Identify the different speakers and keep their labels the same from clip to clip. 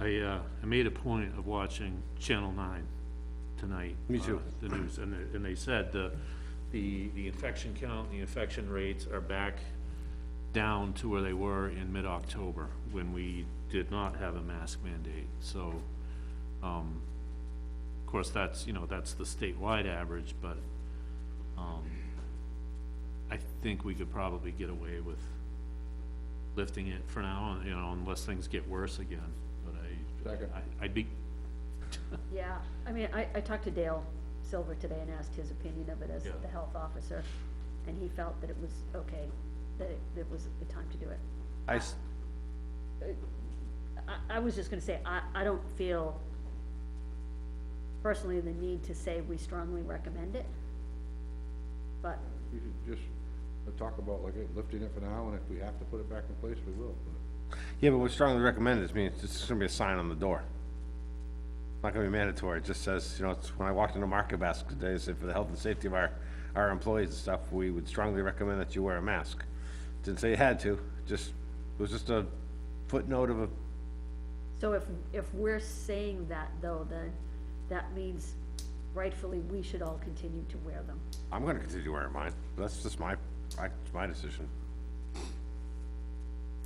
Speaker 1: I, uh, I made a point of watching Channel Nine tonight.
Speaker 2: Me too.
Speaker 1: uh, The news, and they, and they said the, the, the infection count, the infection rates are back down to where they were in mid-October, when we did not have a mask mandate, so, um, of course, that's, you know, that's the statewide average, but, um, I think we could probably get away with lifting it for now, you know, unless things get worse again, but I.
Speaker 2: Second.
Speaker 1: I, I'd be,
Speaker 3: Yeah, I mean, I, I talked to Dale Silver today and asked his opinion of it as
Speaker 1: Yeah.
Speaker 3: the health officer, and he felt that it was okay, that it, that it was the time to do it.
Speaker 2: I, s-
Speaker 3: I, I was just gonna say, I, I don't feel personally the need to say we strongly recommend it, but,
Speaker 4: We should just uh, talk about like uh, lifting it for now, and if we have to put it back in place, we will. but-
Speaker 2: yeah, but we strongly recommend this, I mean, it's just gonna be a sign on the door. Not gonna be mandatory, it just says, you know, it's, when I walked into Market Basket today, it said for the health and safety of our, our employees and stuff, we would strongly recommend that you wear a mask. Didn't say you had to, just, it was just a footnote of a,
Speaker 3: so if, if we're saying that though, then that means rightfully we should all continue to wear them.
Speaker 2: I'm gonna continue wearing mine, but that's just my, I, it's my decision.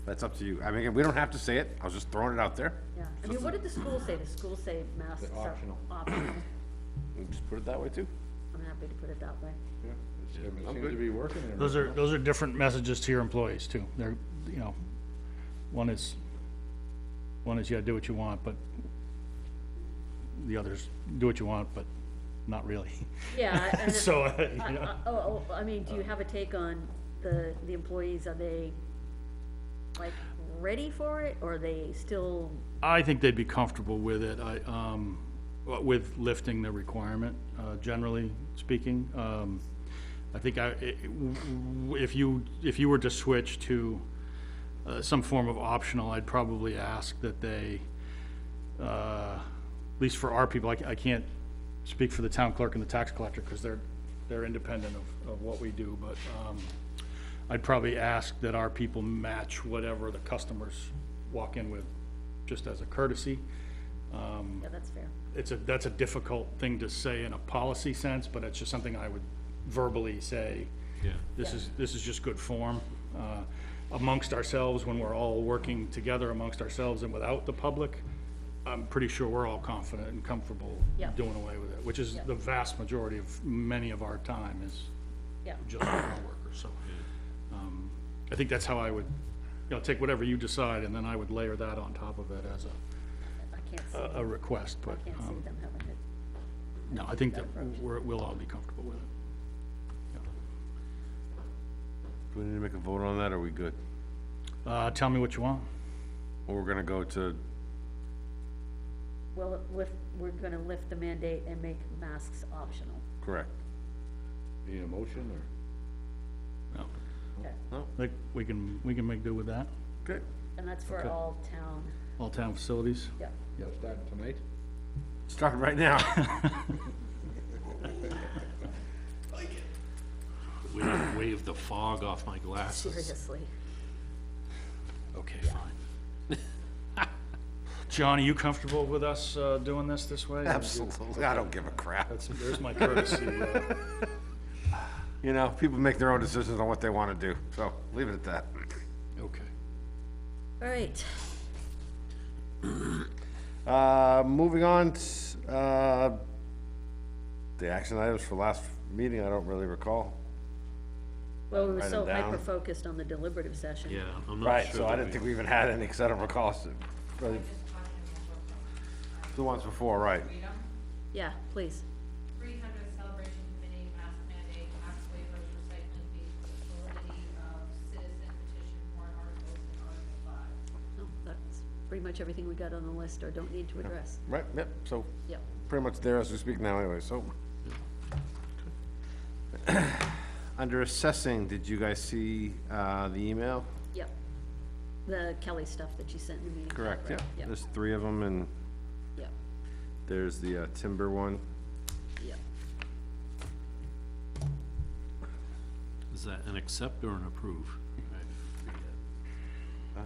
Speaker 2: That's up to you, I mean, we don't have to say it, I was just throwing it out there,
Speaker 3: Yeah, I mean, what did the school say? The school say masks
Speaker 4: They're
Speaker 3: are
Speaker 4: optional.
Speaker 3: optional.
Speaker 2: We just put it that way too.
Speaker 3: I'm happy to put it that way.
Speaker 4: Yeah, it's- I mean,
Speaker 2: I'm
Speaker 4: it seems
Speaker 2: good.
Speaker 4: to be working. and
Speaker 5: Those are, those are different messages to your employees too. They're, you know, one is, one is you gotta do what you want, but the other's do what you want, but not really.
Speaker 3: Yeah, I- and,
Speaker 5: So, uh, you
Speaker 3: I-
Speaker 5: know,
Speaker 3: I- oh, oh, I mean, do you have a take on the, the employees? Are they like ready for it or are they still,
Speaker 5: I think they'd be comfortable with it. I, um, w- with lifting the requirement, uh, generally speaking. Um, I think I, i- w- w- if you, if you were to switch to, uh, some form of optional, I'd probably ask that they, uh, at least for our people, I ca- I can't speak for the town clerk and the tax collector, because they're, they're independent of, of what we do, but um, I'd probably ask that our people match whatever the customers walk in with, just as a courtesy. Um,
Speaker 3: yeah, that's fair.
Speaker 5: It's a, that's a difficult thing to say in a policy sense, but it's just something I would verbally say,
Speaker 1: yeah,
Speaker 5: this is, this is just good form. uh, Amongst ourselves, when we're all working together amongst ourselves and without the public, I'm pretty sure we're all confident and comfortable
Speaker 3: Yeah.
Speaker 5: doing away with it, which is
Speaker 3: Yeah.
Speaker 5: the vast majority of, many of our time is
Speaker 3: Yeah,
Speaker 5: just our workers, so. um, I think that's how I would, you know, take whatever you decide, and then I would layer that on top of it as a,
Speaker 3: I can't see,
Speaker 5: a- a request, but,
Speaker 3: can't see
Speaker 5: uh, um,
Speaker 3: them having it.
Speaker 5: no, I think that we're, we'll all be comfortable with it.
Speaker 2: Do we need to make a vote on that, or are we good?
Speaker 5: Uh, Tell me what you want.
Speaker 2: Or we're gonna go to,
Speaker 3: Well, if, we're gonna lift the mandate and make masks optional.
Speaker 2: correct?
Speaker 4: Need a motion or?
Speaker 5: No.
Speaker 3: Okay.
Speaker 5: Like, we can, we can make do with that,
Speaker 2: Okay.
Speaker 3: And that's for all town,
Speaker 5: all town facilities.
Speaker 3: yeah.
Speaker 4: Yeah, starting tonight?
Speaker 2: Start right now.
Speaker 1: wave, wave the fog off my glasses.
Speaker 3: Seriously.
Speaker 5: Okay, fine. John, are you comfortable with us uh, doing this this way?
Speaker 2: Absolutely, I don't give a crap.
Speaker 5: That's- There's my courtesy. uh,
Speaker 2: You know, people make their own decisions on what they wanna do, so leave it at that.
Speaker 5: Okay.
Speaker 3: All right,
Speaker 2: Uh, moving on, t- uh, the action items for last meeting, I don't really recall.
Speaker 3: well, we were
Speaker 2: Write 'em
Speaker 3: so
Speaker 2: down.
Speaker 3: hyper-focused on the deliberative session.
Speaker 1: Yeah, I'm not
Speaker 2: Right,
Speaker 1: sure.
Speaker 2: so
Speaker 1: that
Speaker 2: I didn't think we even had any, cause I don't recall. s- really. The ones before, right.
Speaker 6: Freedom,
Speaker 3: Yeah, please.
Speaker 6: three hundred celebration committee, mask mandate, mask waivers, recycling fees, validity of citizen petition warrant articles and article five.
Speaker 3: No, That's pretty much everything we got on the list or don't need to address.
Speaker 2: Right, yep, so
Speaker 3: Yep.
Speaker 2: pretty much there as we speak now anyway, so. Under assessing, did you guys see, uh, the email?
Speaker 3: Yep. The Kelly stuff that you sent in the meeting.
Speaker 2: Correct, yeah.
Speaker 3: Yep,
Speaker 2: There's three of them and
Speaker 3: yep,
Speaker 2: there's the uh, timber one.
Speaker 3: yep.
Speaker 1: Is that an accept or an approve?
Speaker 2: Uh,